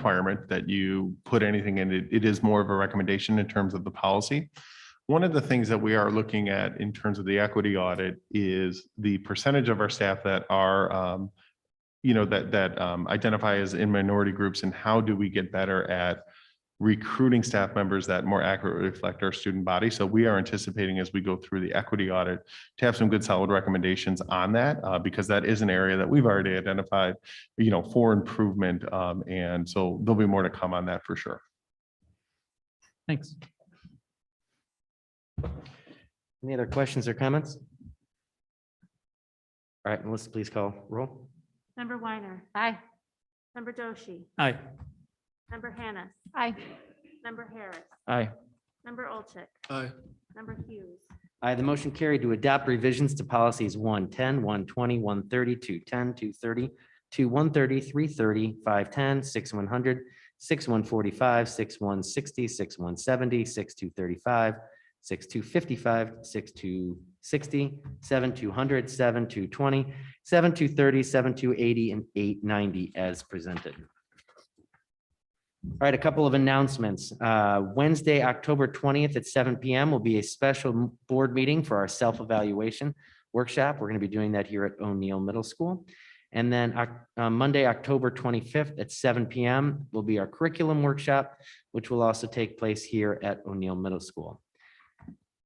requirement that you put anything in it. It is more of a recommendation in terms of the policy. One of the things that we are looking at in terms of the equity audit is the percentage of our staff that are, um, you know, that, that um, identify as in minority groups and how do we get better at recruiting staff members that more accurately reflect our student body. So we are anticipating as we go through the equity audit to have some good solid recommendations on that, uh, because that is an area that we've already identified, you know, for improvement. Um, and so there'll be more to come on that for sure. Thanks. Any other questions or comments? All right, Melissa, please call roll. Member Weiner. Aye. Member Doshi. Aye. Member Hannah. Aye. Member Harris. Aye. Member Olchek. Aye. Member Hughes. Aye, the motion carried to adopt revisions to policies 110, 120, 130, 210, 230, 2130, 330, 510, 6100, 6145, 6160, 6170, 6235, 6255, 6260, 7200, 7220, 7230, 7280, and 890 as presented. All right, a couple of announcements. Uh, Wednesday, October 20th at seven PM will be a special m- board meeting for our self-evaluation workshop. We're going to be doing that here at O'Neill Middle School. And then Oc- uh, Monday, October 25th at seven PM will be our curriculum workshop, which will also take place here at O'Neill Middle School.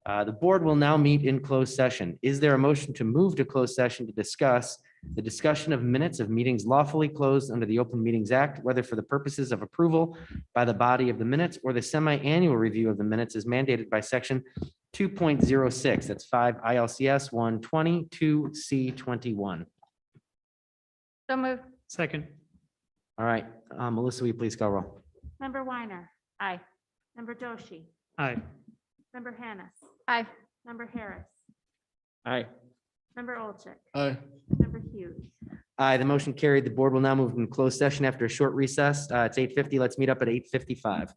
Uh, The board will now meet in closed session. Is there a motion to move to closed session to discuss the discussion of minutes of meetings lawfully closed under the Open Meetings Act, whether for the purposes of approval by the body of the minutes or the semi-annual review of the minutes is mandated by section two point zero six, that's five ILCS one twenty two C twenty-one. So moved. Second. All right, uh, Melissa, will you please call roll? Member Weiner. Aye. Member Doshi. Aye. Member Hannah. Aye. Member Harris. Aye. Member Olchek. Aye. Member Hughes. Aye, the motion carried. The board will now move in closed session after a short recess. Uh, It's eight fifty. Let's meet up at eight fifty-five.